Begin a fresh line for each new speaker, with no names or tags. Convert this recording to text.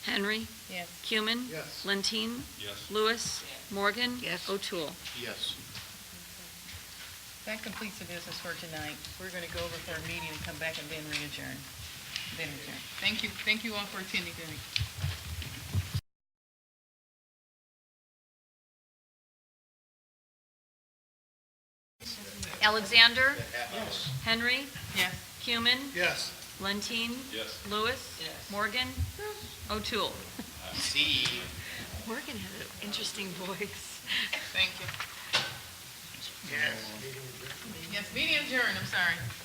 Henry.
Yes.
Cuman.
Yes.
Lentine.
Yes.
Lewis. Morgan.
Yes.
O'Toole.
Yes.
That completes the business for tonight. We're going to go over for a meeting and come back and then re-adjourn. Then adjourn. Thank you, thank you all for attending tonight.
Alexander.
Yes.
Henry.
Yes.
Cuman.
Yes.
Lentine.
Yes.
Lewis. Morgan. O'Toole.
See.
Morgan had an interesting voice.
Thank you.
Yes.
Yes, meeting adjourned, I'm sorry.